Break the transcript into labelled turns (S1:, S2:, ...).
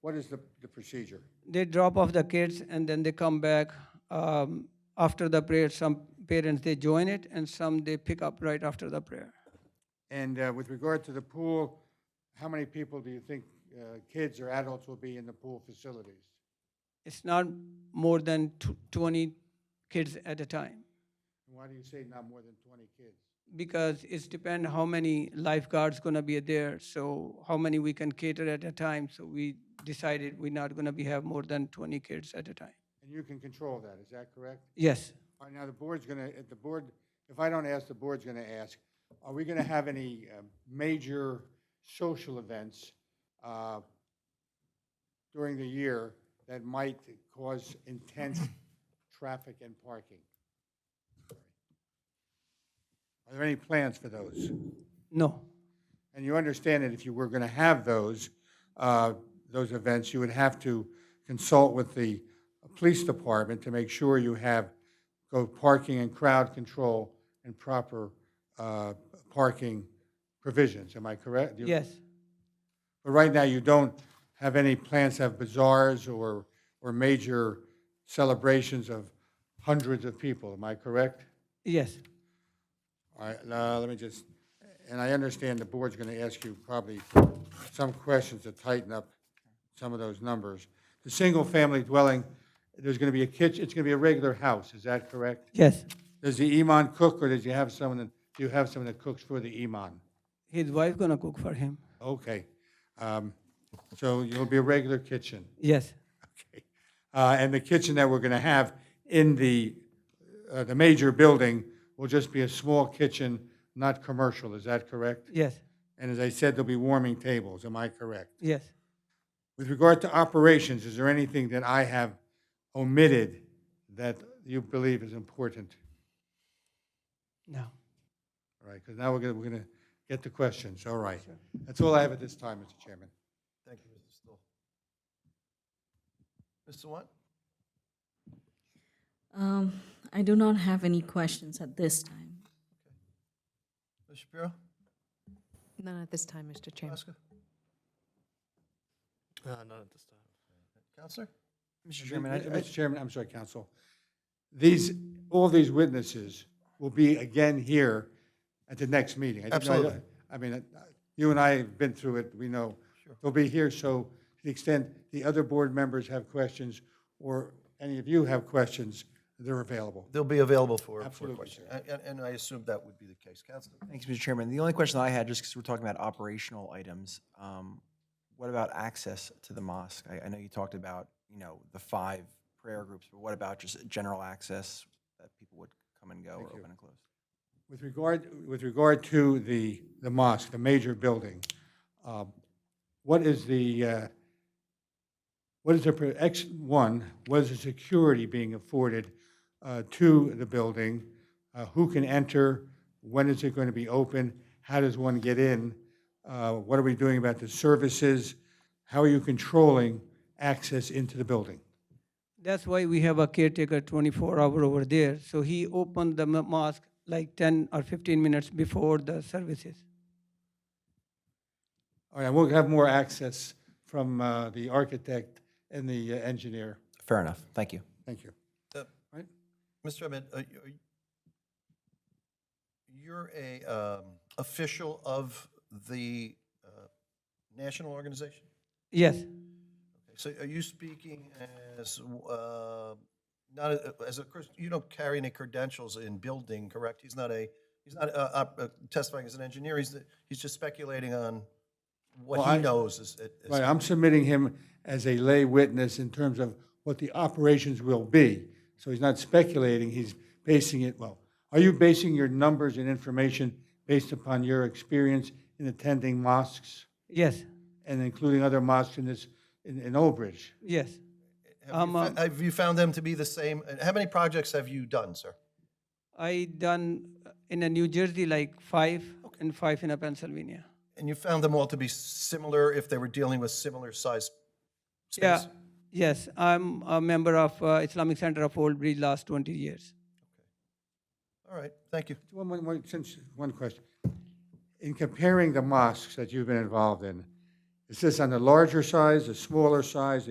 S1: What is the, the procedure?
S2: They drop off the kids and then they come back. Um, after the prayer, some parents they join it and some they pick up right after the prayer.
S1: And uh, with regard to the pool, how many people do you think, uh, kids or adults will be in the pool facilities?
S2: It's not more than tw- 20 kids at a time
S1: And why do you say not more than 20 kids?
S2: because it's depend how many lifeguards gonna be there. So how many we can cater at a time. So we decided we're not gonna be have more than 20 kids at a time.
S1: And you can control that, is that correct?
S2: Yes.
S1: All right, now the board's going to, the board, if I don't ask, the board's going to ask, are we going to have any uh, major social events uh, during the year that might cause intense traffic and parking? Are there any plans for those?
S2: No.
S1: And you understand that if you were going to have those, uh, those events, you would have to consult with the police department to make sure you have both parking and crowd control and proper uh, parking provisions. Am I correct? You-
S2: Yes.
S1: But right now, you don't have any plans to have bazaars or, or major celebrations of hundreds of people. Am I correct?
S2: Yes.
S1: All right, uh, let me just, and I understand the board's going to ask you probably some questions to tighten up some of those numbers. The single-family dwelling, there's going to be a kitchen, it's going to be a regular house, is that correct?
S2: Yes.
S1: Does the imam cook, or does you have someone, that- do you have someone that cooks for the imam?
S2: His wife gonna cook for him.
S1: Okay. Um, So you'll be a regular kitchen.
S2: Yes.
S1: Okay. Uh, And the kitchen that we're going to have in the, uh, the major building will just be a small kitchen, not commercial, is that correct?
S2: Yes.
S1: And as I said, there'll be warming tables, am I correct?
S2: Yes.
S1: With regard to operations, is there anything that I have omitted that you believe is important?
S2: No.
S1: All right, because now we're going, we're going to get to questions, all right. That's all I have at this time, Mr. Chairman.
S3: Thank you, Mr. Stoll. Mr. What?
S4: Um, I do not have any questions at this time.
S3: Ms. Shapiro?
S5: None at this time, Mr. Chairman.
S3: Oscar?
S6: Uh, not at this time.
S3: Counselor?
S6: Mr.
S1: Mr. Chairman, I'm sorry, Counsel. uh, These, all these witnesses will be again here at the next meeting. I didn't know-
S3: Absolutely.
S1: I mean, uh, you and I have been through it, we know. They'll be here, so to the extent the other board members have questions, or any of you have questions, they're available.
S3: They'll be available for, for
S1: Absolutely,
S3: questions. And- And, and I assume that would be the case. Counselor?
S6: Thanks, Mr. Chairman. The only question I had, just because we're talking about operational items, um, what about access to the mosque? I, I know you talked about, you know, the five prayer groups, but what about just general access that people would come and go or open and close?
S1: With regard, with regard to the, the mosque, the major building, um, what is the, uh, what is the, pro- X, one, what is the security being afforded uh, to the building? Uh, Who can enter? When is it going to be open? How does one get in? Uh, What are we doing about the services? How are you controlling access into the building?
S2: That's why we have a caretaker 24 hour over there. So he opened the mo- mosque like 10 or 15 minutes before the services.
S1: All right, we'll have more access from uh, the architect and the uh, engineer.
S6: Fair enough. Thank you.
S1: Thank you.
S3: Uh,
S1: Right.
S3: Mr. Ahmed, are you- are you- you're a um, official of the uh, national organization?
S2: Yes.
S3: So are you speaking as, uh, not a- as a, Chris- you don't carry any credentials in building, correct? He's not a, he's not uh, op- uh, testifying as an engineer, he's, he's just speculating on
S1: Well,
S3: what he
S1: I-
S3: knows is. is- is-
S1: Right, I'm submitting him as a lay witness in terms of what the operations will be. So he's not speculating, he's basing it, well, are you basing your numbers and information based upon your experience in attending mosques
S2: Yes.
S1: and including other mosques in this, in, in Old Bridge?
S2: Yes.
S3: Have you
S2: I'm,
S3: fo- have you found them to be the same? And How many projects have you done, sir?
S2: I done uh, in a New Jersey like five and five in a Pennsylvania.
S3: And you found them all to be similar if they were dealing with similar size space?
S2: Yeah. Yes. I'm a member of uh, Islamic Center of Old Bridge last 20 years.
S3: All right, thank you.
S1: One, one, one, since, one question. In comparing the mosques that you've been involved in, Is this on the larger size, the smaller size, the